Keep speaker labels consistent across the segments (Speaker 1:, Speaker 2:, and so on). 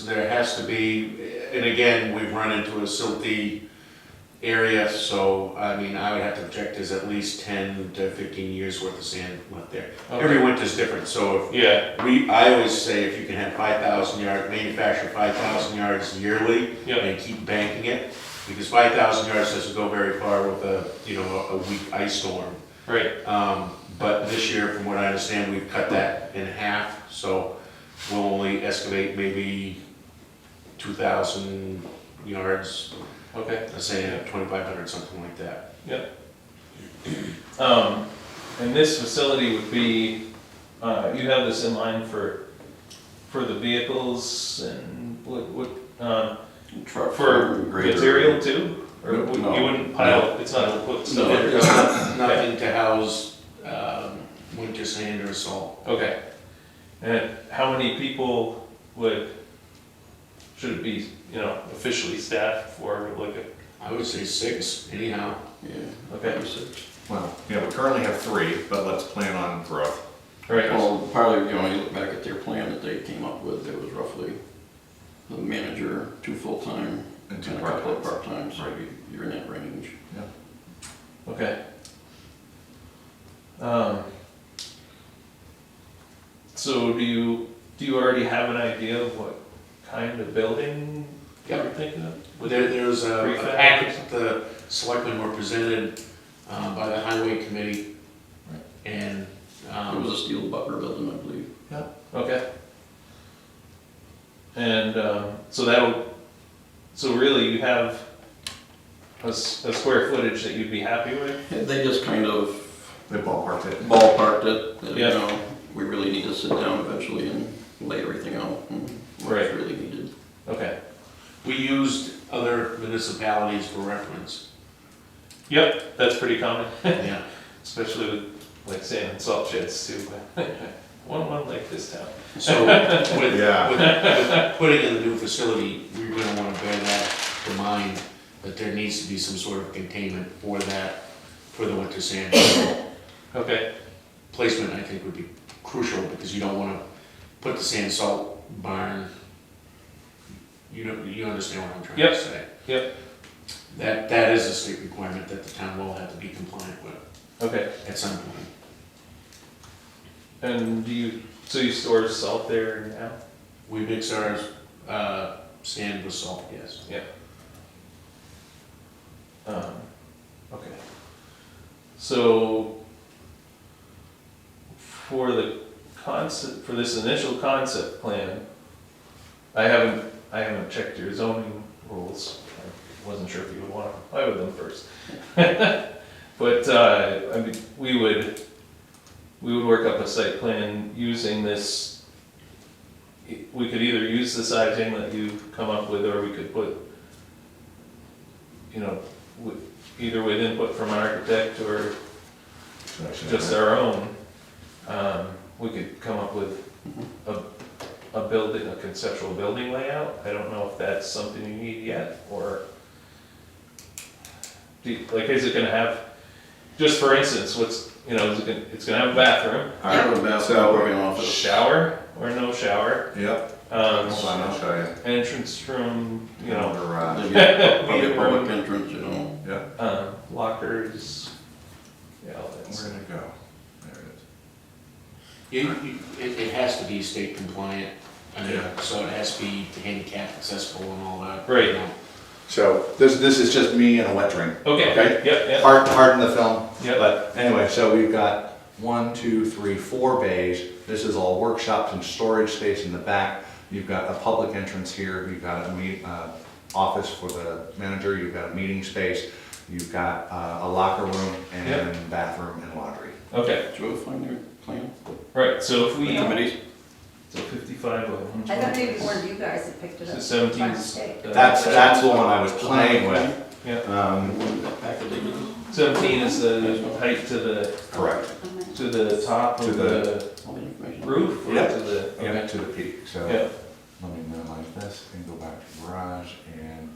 Speaker 1: there has to be, and again, we've run into a silty area, so, I mean, I would have to project there's at least ten to fifteen years worth of sand left there. Every winter's different, so
Speaker 2: Yeah,
Speaker 1: if we, I always say if you can have five thousand yard, manufacture five thousand yards yearly
Speaker 2: yeah,
Speaker 1: and keep banking it, because five thousand yards doesn't go very far with a, you know, a weak ice storm.
Speaker 2: right,
Speaker 1: Um, But this year, from what I understand, we've cut that in half, so we'll only excavate maybe 2,000 yards,
Speaker 2: okay.
Speaker 1: let's say 2,500, something like that.
Speaker 2: Um, and this facility would be, uh, you have this in line for, for the vehicles and what, what, um,
Speaker 3: Truck
Speaker 2: for
Speaker 3: grader.
Speaker 2: material too? Or
Speaker 3: No,
Speaker 2: would- you
Speaker 3: no.
Speaker 2: wouldn't pile, it's not, put stuff
Speaker 3: No.
Speaker 2: in your stuff?
Speaker 1: Nothing to house um, winter sand or salt.
Speaker 2: Okay. And how many people would, should it be, you know, officially staffed for like a,
Speaker 1: I would say six anyhow.
Speaker 3: Yeah.
Speaker 2: okay,
Speaker 4: Well, yeah, we currently have three, but let's plan on growth.
Speaker 2: all right,
Speaker 3: Well, probably, you know, you look back at their plan that they came up with, it was roughly the manager, two full-time,
Speaker 4: And
Speaker 3: and
Speaker 4: two
Speaker 3: a couple of part-times,
Speaker 4: part-times.
Speaker 3: so
Speaker 4: Right.
Speaker 3: you- you're in that range.
Speaker 2: okay. Um. So do you, do you already have an idea of what kind of building you're
Speaker 1: Yep.
Speaker 2: thinking of?
Speaker 1: There, there was a
Speaker 2: Prefab.
Speaker 1: a package that the selectmen were presented um, by the highway committee.
Speaker 2: Right.
Speaker 1: And
Speaker 3: It
Speaker 1: um,
Speaker 3: was a steel butler building, I believe.
Speaker 2: Okay. And, um, so that'll, so really you have a, s- a square footage that you'd be happy with?
Speaker 3: And They just kind of
Speaker 4: They ballparked it.
Speaker 3: ballparked it, that, you
Speaker 2: Yeah.
Speaker 3: know, we really need to sit down eventually and lay everything out, and what's
Speaker 2: Right.
Speaker 3: really needed.
Speaker 2: Okay.
Speaker 1: we used other municipalities for reference.
Speaker 2: Yep, that's pretty common,
Speaker 1: Yeah.
Speaker 2: especially with like sand and salt sheds too. One, one like this town.
Speaker 1: So with, with,
Speaker 4: Yeah.
Speaker 1: with putting in the new facility, we're gonna wanna bear that in mind, that there needs to be some sort of containment for that, for the winter sand. So
Speaker 2: Okay,
Speaker 1: Placement, I think, would be crucial, because you don't wanna put the sand salt barn, you know, you understand what I'm trying to
Speaker 2: Yep,
Speaker 1: say.
Speaker 2: yep.
Speaker 1: That, that is a state requirement that the town will have to be compliant with
Speaker 2: okay.
Speaker 1: at some point.
Speaker 2: And do you, so you store salt there now?
Speaker 1: We mix our, uh, sand with salt, yes.
Speaker 2: Um, okay. So for the concept, for this initial concept plan, I haven't, I haven't checked your zoning rules. I wasn't sure if you would want to comply with them first. But, uh, I mean, we would, we would work up a site plan using this. We could either use the sizing that you come up with, or we could put, you know, with, either with input from an architect or just our own, um, we could come up with a, a building, a conceptual building layout. I don't know if that's something you need yet, or, do, you- like, is it gonna have, just for instance, what's, you know, is it gonna, it's gonna have a bathroom,
Speaker 4: All right,
Speaker 3: Have a bathroom,
Speaker 4: so-
Speaker 3: an office.
Speaker 2: shower or no shower,
Speaker 4: Yep,
Speaker 2: um,
Speaker 4: hold on, I'll show you. uh,
Speaker 2: entrance room, you know,
Speaker 3: There'd
Speaker 4: Garage,
Speaker 3: be a- Probably a public entrance, you know.
Speaker 4: yeah,
Speaker 2: um, lockers, yeah, all that
Speaker 4: where
Speaker 2: stuff.
Speaker 4: did it go? There it is.
Speaker 1: You, you, it, it has to be state compliant, I mean,
Speaker 4: Yeah.
Speaker 1: so it has to be handicap accessible and all that.
Speaker 2: Right.
Speaker 1: you know.
Speaker 4: So this, this is just me and a wet dream.
Speaker 2: Okay,
Speaker 4: Okay.
Speaker 2: yep, yep.
Speaker 4: Hard, hard in the film.
Speaker 2: Yep.
Speaker 4: But anyway, so we've got one, two, three, four bays. This is all workshops and storage space in the back. You've got a public entrance here, you've got a meet, uh, office for the manager, you've got a meeting space, you've got, uh, a locker room and bathroom and laundry.
Speaker 2: Okay,
Speaker 3: Did you find their plan?
Speaker 2: right, so if
Speaker 3: The
Speaker 2: we.
Speaker 3: committees?
Speaker 2: So fifty-five of them.
Speaker 5: I thought maybe one of you guys had picked it
Speaker 2: So
Speaker 5: up.
Speaker 2: seventeen.
Speaker 5: by
Speaker 2: is-
Speaker 5: mistake.
Speaker 2: uh,
Speaker 4: That's, that's the one I was playing with.
Speaker 2: Yeah,
Speaker 4: Um,
Speaker 2: seventeen is the height to the,
Speaker 4: correct,
Speaker 5: I'm like,
Speaker 2: to the top
Speaker 4: To
Speaker 2: of
Speaker 4: the-
Speaker 2: the
Speaker 3: All the information.
Speaker 2: roof or to
Speaker 4: Yeah.
Speaker 2: the,
Speaker 4: yeah,
Speaker 2: okay,
Speaker 4: to the peak, so.
Speaker 2: yeah,
Speaker 4: Let me minimize this and go back to garage and.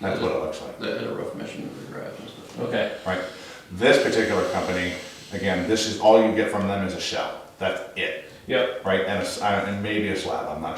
Speaker 4: That's what it looks like.
Speaker 3: They had a rough mission of the garage and stuff.
Speaker 2: okay,
Speaker 4: Right. This particular company, again, this is, all you get from them is a shell. That's it,
Speaker 2: yep.
Speaker 4: right? And a s- uh, and maybe a slab, I'm not sure.